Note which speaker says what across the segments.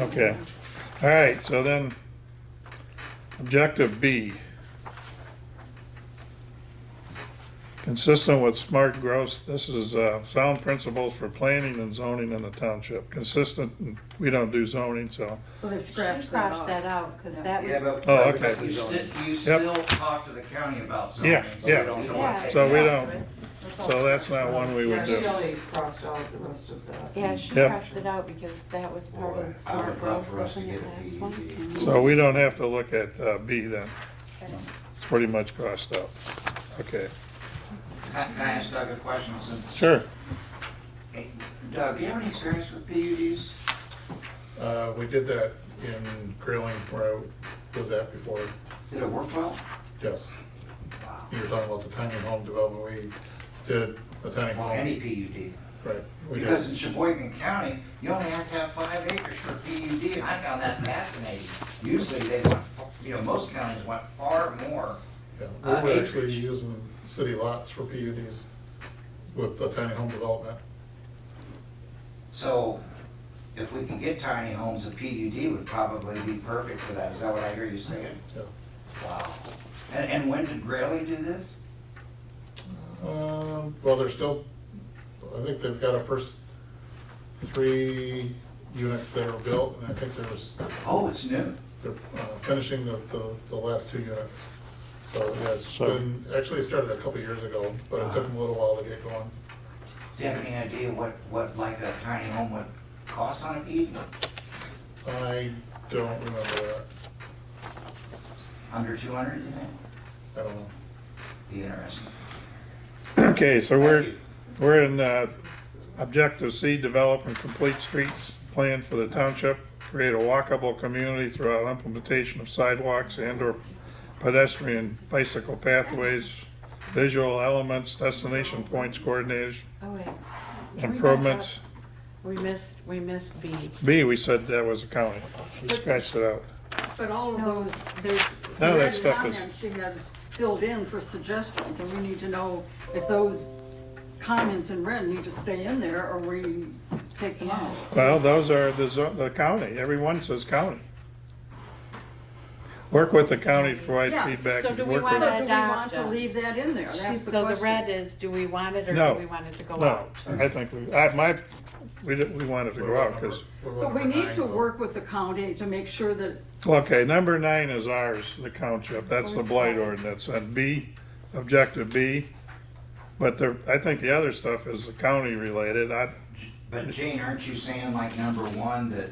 Speaker 1: Okay, all right, so then, objective B. Consistent with smart growth, this is, uh, sound principles for planning and zoning in the township, consistent, we don't do zoning, so,
Speaker 2: So they
Speaker 3: She
Speaker 2: scratched
Speaker 3: crossed that
Speaker 2: that off.
Speaker 3: out, because
Speaker 2: Yeah.
Speaker 3: that
Speaker 4: Yeah,
Speaker 3: was,
Speaker 4: but.
Speaker 1: Oh, okay.
Speaker 4: You still, you
Speaker 1: Yep.
Speaker 4: still talk to the county about something.
Speaker 1: Yeah,
Speaker 4: so we
Speaker 1: yeah.
Speaker 4: don't- you don't
Speaker 3: Yeah.
Speaker 4: take
Speaker 1: so
Speaker 4: it
Speaker 1: we
Speaker 4: out.
Speaker 1: don't, so that's not one we
Speaker 5: Yeah,
Speaker 1: would
Speaker 5: she
Speaker 1: do.
Speaker 5: only crossed out the rest of that.
Speaker 3: yeah, she
Speaker 1: Yep.
Speaker 3: crossed it out because that was part
Speaker 4: Boy, I
Speaker 3: of the
Speaker 4: would
Speaker 3: smart
Speaker 4: love
Speaker 3: growth,
Speaker 4: for us to
Speaker 3: wasn't it,
Speaker 4: get a E
Speaker 3: last one?
Speaker 4: PED.
Speaker 1: So we don't have to look at, uh, B then. It's pretty much crossed out, okay,
Speaker 4: Can can I ask Doug a question since?
Speaker 1: sure.
Speaker 4: Hey, Doug, do you have any experience with PUDs?
Speaker 6: Uh, we did that in grilling where I was at before,
Speaker 4: Did it work well?
Speaker 6: yes.
Speaker 4: Wow.
Speaker 6: You were talking about the tiny home development, we did a tiny
Speaker 4: Or any
Speaker 6: home,
Speaker 4: PUD?
Speaker 6: right? we did.
Speaker 4: Because in Sheboygan County, you only have to have five acres for PUD, and I found that fascinating. Usually they want, you know, most counties want far more.
Speaker 6: Yeah,
Speaker 4: uh,
Speaker 6: We were actually
Speaker 4: acreage.
Speaker 6: using city lots for PUDs with the tiny home development.
Speaker 4: So if we can get tiny homes, a PUD would probably be perfect for that. Is that what I hear you saying?
Speaker 6: Yeah.
Speaker 4: Wow. And, and when did Grayley do this?
Speaker 6: Um, Well, they're still, I think they've got a first three units that are built, and I think there's,
Speaker 4: Oh, it's new.
Speaker 6: they're uh, finishing the, the- the last two units. So, yeah, it's
Speaker 1: So-
Speaker 6: been, actually it started a couple years ago, but it took them a little while to get going.
Speaker 4: Do you have any idea what, what like a tiny home would cost on a PUD?
Speaker 6: I don't remember that,
Speaker 4: Under two hundred, you think?
Speaker 6: I don't know.
Speaker 4: Be interesting.
Speaker 1: Okay, so we're,
Speaker 4: Thank you.
Speaker 1: we're in, uh, objective C, develop and complete streets plan for the township, create a walkable community throughout implementation of sidewalks and or pedestrian bicycle pathways, visual elements, destination points, coordinators,
Speaker 3: Oh, wait,
Speaker 1: improvements.
Speaker 3: we missed, we missed B.
Speaker 1: B, we said that was a county, we scratched it out.
Speaker 2: But all of
Speaker 3: No,
Speaker 2: those,
Speaker 3: there's,
Speaker 1: No, that
Speaker 2: red
Speaker 1: stuff is-
Speaker 2: comments she has filled in for suggestions, and we need to know if those comments in red need to stay in there, or we take them out.
Speaker 1: Well, those are the, zo- the county, everyone says county. Work with the county to provide
Speaker 2: Yes,
Speaker 1: feedback.
Speaker 3: so
Speaker 1: and
Speaker 3: do we
Speaker 1: work
Speaker 3: wanna
Speaker 2: So
Speaker 1: with-
Speaker 2: do we
Speaker 3: adopt
Speaker 2: want to
Speaker 3: a-
Speaker 2: leave that in there? That's
Speaker 3: she's,
Speaker 2: the
Speaker 3: so the
Speaker 2: question.
Speaker 3: red is, do we want it or
Speaker 1: No.
Speaker 3: do we want it to go
Speaker 1: No,
Speaker 3: out?
Speaker 1: I think we, I, my, we, didn't- we wanted to
Speaker 6: What
Speaker 1: go
Speaker 6: about
Speaker 1: out,
Speaker 6: number-
Speaker 1: cause,
Speaker 6: what about
Speaker 2: But we
Speaker 6: number
Speaker 2: need
Speaker 6: nine,
Speaker 2: to
Speaker 6: though?
Speaker 2: work with the county to make sure that
Speaker 1: okay, number nine is ours, the township, that's the blight ordinance, and B, objective B. But the, I think the other stuff is the county related, I,
Speaker 4: But Jane, aren't you saying like number one, that,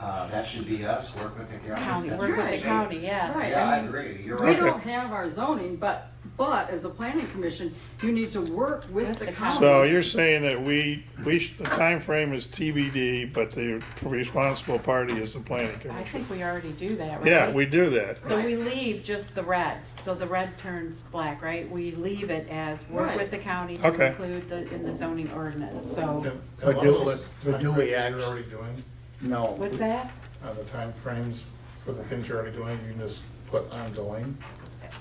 Speaker 4: uh, that should be us, work with the county?
Speaker 3: County,
Speaker 4: That's
Speaker 3: work
Speaker 4: what
Speaker 3: with
Speaker 4: I'm
Speaker 3: the
Speaker 4: saying.
Speaker 3: county, yeah.
Speaker 2: Right.
Speaker 4: Yeah, I agree, you're
Speaker 2: We
Speaker 4: right.
Speaker 2: don't have our zoning, but, but as a planning commission, you need to work with the
Speaker 1: so
Speaker 2: county.
Speaker 1: you're saying that we, we, sh- the time frame is TBD, but the responsible party is the planning
Speaker 3: I
Speaker 1: commission.
Speaker 3: think we already do that, right?
Speaker 1: Yeah, we do that,
Speaker 3: So we leave just the red, so the red turns black, right? We leave it as work
Speaker 2: Right.
Speaker 3: with the county to
Speaker 1: Okay.
Speaker 3: include the, in the zoning ordinance, so,
Speaker 6: Yeah, and
Speaker 7: But
Speaker 6: a lot
Speaker 7: do-
Speaker 6: of those
Speaker 7: but- but do
Speaker 6: timeframes
Speaker 7: we
Speaker 6: You're
Speaker 7: act-
Speaker 6: already doing,
Speaker 7: No.
Speaker 3: what's that?
Speaker 6: on the timeframes for the things you're already doing, you can just put ongoing,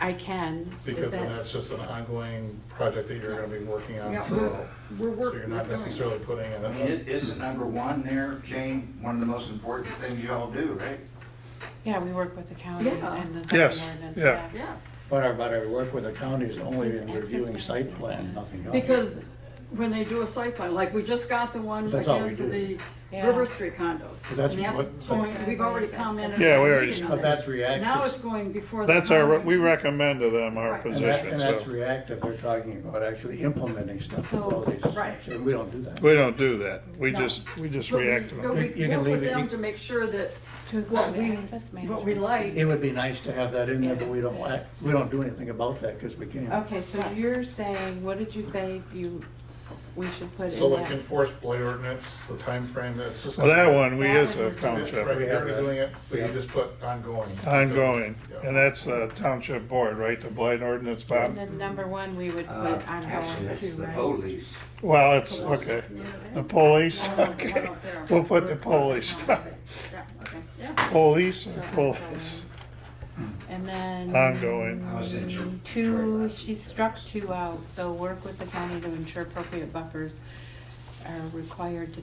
Speaker 3: I can. Is
Speaker 6: because then
Speaker 3: that-
Speaker 6: that's just an ongoing project that you're gonna be working on
Speaker 2: Yeah,
Speaker 6: throughout.
Speaker 2: We're
Speaker 6: So
Speaker 2: working.
Speaker 6: you're not necessarily putting in
Speaker 4: I mean,
Speaker 6: a,
Speaker 4: it- isn't number one there, Jane, one of the most important things y'all do, right?
Speaker 3: Yeah, we work with the county
Speaker 2: Yeah.
Speaker 3: and the
Speaker 1: Yes,
Speaker 3: zoning ordinance,
Speaker 1: yeah.
Speaker 3: yeah.
Speaker 2: Yes,
Speaker 7: But our, but our work with the county is only
Speaker 3: It's
Speaker 7: in
Speaker 3: access
Speaker 7: reviewing
Speaker 3: management.
Speaker 7: site plan, nothing else.
Speaker 2: because when they do a site plan, like we just got the one
Speaker 7: That's all
Speaker 2: again
Speaker 7: we
Speaker 2: for
Speaker 7: do.
Speaker 2: the
Speaker 3: Yeah.
Speaker 2: River Street condos.
Speaker 7: But that's
Speaker 2: And that's
Speaker 7: what-
Speaker 2: going, we've already commented.
Speaker 1: Yeah, we
Speaker 2: on
Speaker 1: already-
Speaker 2: meeting on
Speaker 7: But
Speaker 2: that.
Speaker 7: that's reactive.
Speaker 2: Now it's going before. the
Speaker 1: that's our,
Speaker 2: county.
Speaker 1: we recommend to them our
Speaker 2: Right.
Speaker 7: And that-
Speaker 1: position,
Speaker 7: And that's
Speaker 1: so,
Speaker 7: reactive, they're talking about actually implementing stuff.
Speaker 3: So,
Speaker 7: all these
Speaker 2: right.
Speaker 7: steps, And we don't do that.
Speaker 1: we don't do that, we
Speaker 2: No.
Speaker 1: just, we just
Speaker 2: But we-
Speaker 1: react to
Speaker 2: But
Speaker 1: them.
Speaker 2: we
Speaker 7: You can
Speaker 2: work with
Speaker 7: leave it-
Speaker 2: them to make sure that
Speaker 3: To
Speaker 2: what
Speaker 3: include
Speaker 2: we,
Speaker 3: access
Speaker 2: what we
Speaker 3: management.
Speaker 2: like.
Speaker 7: It would be nice to have that in there, but
Speaker 3: Yeah.
Speaker 7: we don't act, we don't do anything about that because we can't.
Speaker 3: Okay, so you're saying, what did you say you, we should put in
Speaker 6: so like
Speaker 3: that?
Speaker 6: enforced blight ordinance, the timeframe, that's just.
Speaker 1: Well, that one, we
Speaker 3: That
Speaker 1: is a
Speaker 3: one.
Speaker 6: Right,
Speaker 1: township,
Speaker 6: you're already doing it, but you
Speaker 7: Yeah.
Speaker 6: just put ongoing.
Speaker 1: ongoing,
Speaker 6: Yeah.
Speaker 1: and that's a township board, right, the blight ordinance, Bob?
Speaker 3: And then number one, we would put
Speaker 4: Uh, Actually,
Speaker 3: ongoing
Speaker 4: that's
Speaker 3: too,
Speaker 4: the
Speaker 3: right?
Speaker 4: police.
Speaker 1: Well, it's, okay, the police,
Speaker 2: One up- one
Speaker 1: okay,
Speaker 2: up there.
Speaker 1: we'll put the police,
Speaker 2: Yeah, okay, yeah.
Speaker 1: police, or police,
Speaker 3: And then.
Speaker 1: Um, ongoing,
Speaker 4: I
Speaker 3: Mm-hmm.
Speaker 4: was in Detroit
Speaker 3: Two,
Speaker 4: last
Speaker 3: she
Speaker 4: week.
Speaker 3: struck two out, so work with the county to ensure appropriate buffers are required to